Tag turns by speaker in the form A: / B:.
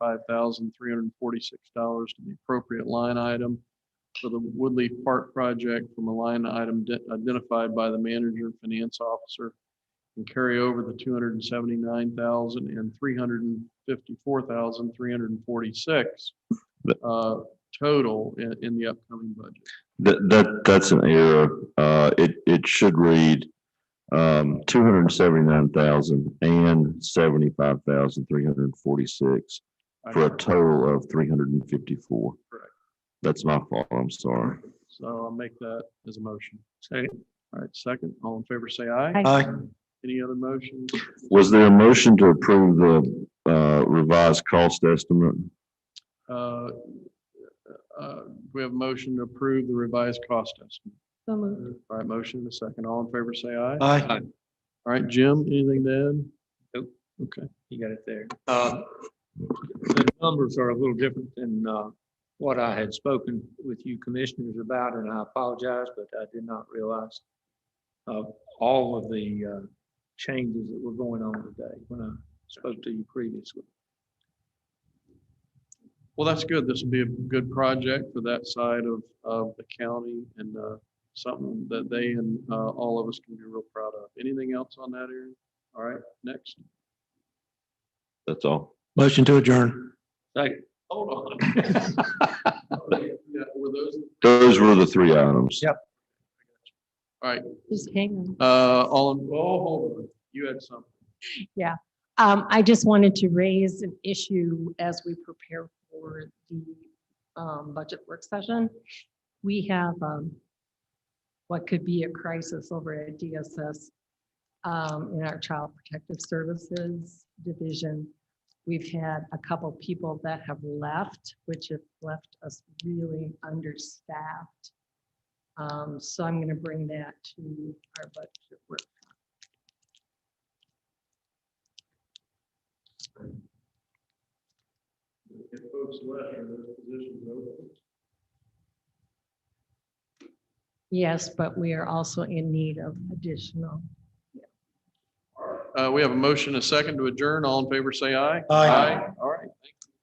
A: five thousand three hundred and forty-six dollars to the appropriate line item for the Woodley Park project from a line item de- identified by the manager and finance officer and carry over the two hundred and seventy-nine thousand and three hundred and fifty-four thousand three hundred and forty-six uh, total in, in the upcoming budget.
B: That, that, that's an error. Uh, it, it should read, um, two hundred and seventy-nine thousand and seventy-five thousand, three hundred and forty-six
A: I
B: for a total of three hundred and fifty-four.
A: Correct.
B: That's my fault. I'm sorry.
A: So I'll make that as a motion. Second. All right, second, all in favor, say aye.
C: Aye.
A: Any other motions?
B: Was there a motion to approve the, uh, revised cost estimate?
A: Uh, uh, We have a motion to approve the revised cost estimate.
C: So moved.
A: All right, motion and a second, all in favor, say aye.
D: Aye.
A: All right, Jim, anything to add?
D: Nope.
A: Okay,
D: You got it there. Uh, The numbers are a little different than uh, what I had spoken with you commissioners about, and I apologize, but I did not realize uh, all of the uh, changes that were going on today when I spoke to you previously.
A: well, that's good. This will be a good project for that side of, of the county and uh, something that they and uh, all of us can be real proud of. Anything else on that area? All right, next.
B: That's all.
E: Motion to adjourn.
D: Second.
A: Hold on. Yeah, Were those?
B: Those were the three items.
D: Yep.
C: Just hang on.
A: Uh, all, in- oh, hold on. You had something.
C: Um, I just wanted to raise an issue as we prepare for the, um, budget work session. We have, um, what could be a crisis over at DSS, um, in our Child Protective Services Division. We've had a couple people that have left, which have left us really understaffed. Um, so I'm gonna bring that to our budget work
A: If folks left, are those positions open?
C: Yes, but we are also in need of additional.
A: Uh, we have a motion, a second to adjourn. All in favor, say aye.
D: Aye.
A: All